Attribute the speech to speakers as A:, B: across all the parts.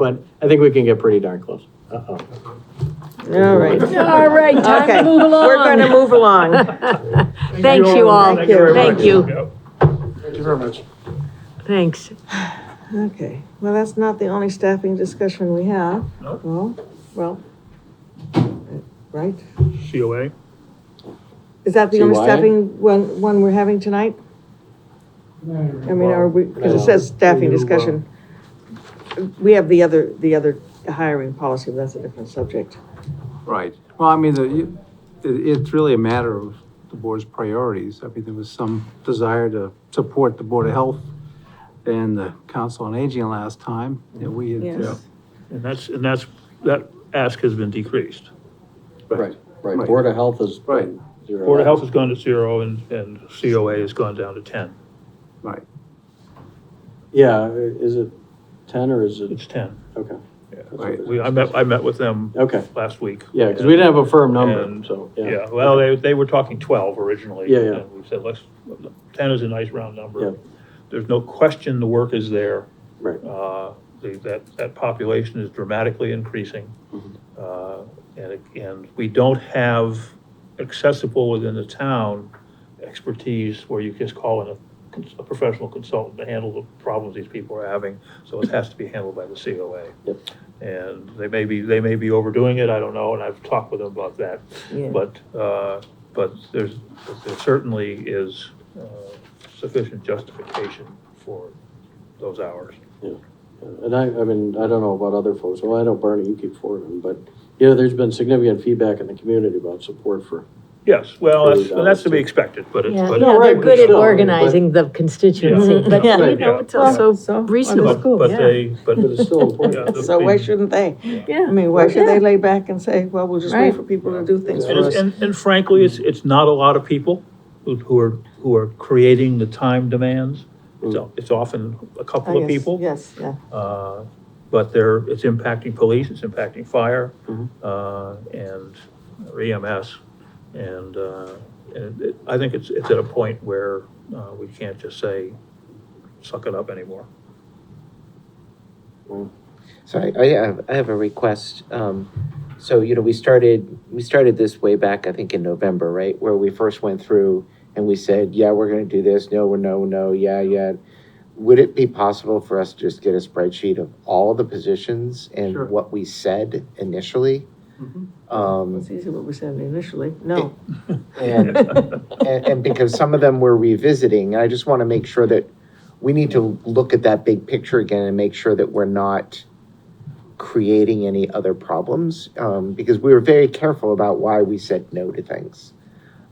A: but I think we can get pretty darn close. Uh-oh.
B: All right.
C: All right, time
B: Okay.
C: to move along.
B: We're going to move along.
C: Thank you all.
B: Thank you very
C: Thank you.
D: Thank you very much.
C: Thanks.
B: Okay, well, that's not the only staffing discussion we have.
D: No.
B: Well, well, uh, right?
D: COA?
B: Is that the only
A: CYA?
B: staffing one, one we're having tonight? I mean, are we, because it says staffing
D: Well, you, uh,
B: discussion. We have the other, the other hiring policy, but that's a different subject.
E: Right. Well, I mean, the, you- it, it's really a matter of the board's priorities. I mean, there was some desire to support the Board of Health and the Council on Aging last time, and we had.
B: Yes.
D: And that's, and that's, that ask has been decreased.
A: Right, right.
E: Right.
A: Board of Health is.
E: Right.
A: zero.
D: Board of Health has gone to zero and, and COA has gone down to ten.
E: Right.
A: Yeah, i- is it ten or is it,
D: It's ten.
A: okay.
D: Yeah.
E: Right.
D: We, I met, I met with them
A: Okay,
D: last week.
A: yeah, because we didn't have a firm number,
D: And-
A: so, yeah.
D: Yeah, well, they, they were talking twelve originally.
A: Yeah, yeah.
D: and We said, let's, ten is a nice round
A: Yeah.
D: number. There's no question the work is there.
A: Right.
D: Uh, the- That, that population is dramatically increasing.
A: Mm-hmm.
D: Uh, And, it- and we don't have accessible within the town expertise where you just call in a, cons- a professional consultant to handle the problems these people are having. So it has to be handled by the COA.
A: Yep.
D: And they may be, they may be overdoing it, I don't know, and I've talked with them about that.
B: Yeah.
D: But, uh, but there's, there certainly is uh, sufficient justification for those hours.
A: And I, I mean, I don't know about other folks, well, I know Barney, you keep forwarding, but, you know, there's been significant feedback in the community about support for.
D: Yes, well,
A: For
D: that's,
A: those
D: and that's
A: hours,
D: to be
A: too.
D: expected, but it's.
C: Yeah,
D: but-
A: No,
C: yeah,
A: right,
C: they're
A: but
C: good at
A: still, but-
C: organizing the constituency, but
B: Yeah.
C: you know,
D: Yeah.
C: it's also,
B: so
C: reasonable.
D: But, but they, but.
A: But it's still important.
D: Yeah, the-
B: So why shouldn't they?
C: yeah.
B: I mean, why should
C: Yeah.
B: they lay back and say, well, we'll just
C: Right.
B: wait for people to do things
D: And
B: for us?
D: it's- And, and frankly, it's, it's not a lot of people who, who are, who are creating the time demands. It's, o- it's often a
B: I
D: couple of
B: guess,
D: people,
B: Yes, yeah.
D: uh, but they're, it's impacting police, it's impacting fire,
A: Mhm.
D: uh, and or EMS. And, uh, and it, I think it's, it's at a point where, uh, we can't just say, suck it up anymore.
F: So I, I have, I have a request. Um, so, you know, we started, we started this way back, I think in November, right? Where we first went through and we said, yeah, we're gonna do this, no, we're no, no, yeah, yeah. Would it be possible for us to just get a spreadsheet of all the positions
E: Sure.
F: and what we said initially?
E: Mhm.
F: Um,
B: It's easy what we said initially. No.
F: and, and, and because some of them we're revisiting, I just want to make sure that we need to look at that big picture again and make sure that we're not creating any other problems, um, because we were very careful about why we said no to things.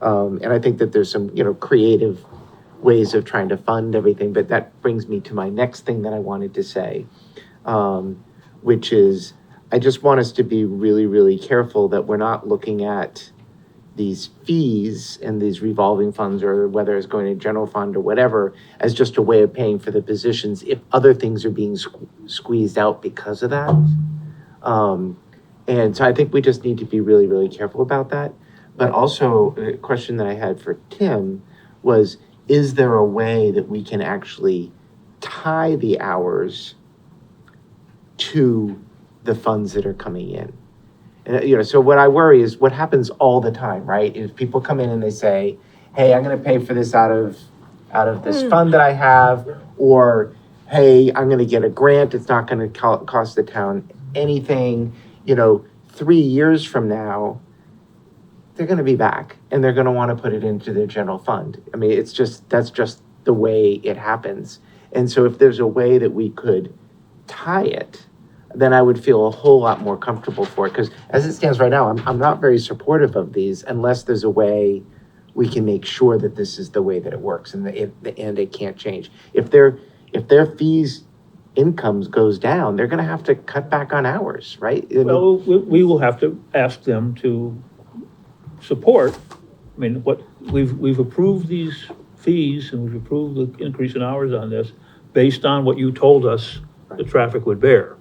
F: Um, and I think that there's some, you know, creative ways of trying to fund everything, but that brings me to my next thing that I wanted to say, um, which is, I just want us to be really, really careful that we're not looking at these fees and these revolving funds or whether it's going to general fund or whatever as just a way of paying for the positions if other things are being sque- squeezed out because of that. Um, and so I think we just need to be really, really careful about that. But also, a question that I had for Tim was Is there a way that we can actually tie the hours to the funds that are coming in? And, uh, you know, so what I worry is what happens all the time, right? Is people come in and they say, "Hey, I'm going to pay for this out of out of this fund that I have," or "Hey, I'm going to get a grant. It's not going to co- cost the town anything." You know, three years from now, they're going to be back and they're going to want to put it into their general fund. I mean, it's just that's just the way it happens. And so, if there's a way that we could tie it then I would feel a whole lot more comfortable for it. Because as it stands right now, I'm, I'm not very supportive of these unless there's a way we can make sure that this is the way that it works and that it, the, and it can't change. If their, if their fees incomes goes down, they're gonna have to cut back on hours, right? I mean,
D: Well, we, we will have to ask them to support, I mean, what, we've, we've approved these fees and we've approved the increase in hours on this based on what you told us the traffic would bear,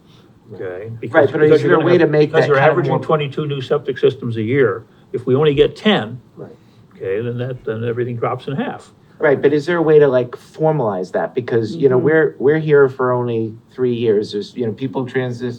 D: okay? Because-
F: Right, but is
D: because you're
F: there a
D: gonna
F: way
D: have-
F: to make
D: Because
F: that
D: you're
F: kind of
D: averaging
F: more-
D: twenty-two new septic systems a year, if we only get ten,
A: Right.
D: okay, then that, then everything drops in half.
F: Right, but is there a way to like formalize that? Because, you know, we're, we're here for only three years. There's, you know, people transit,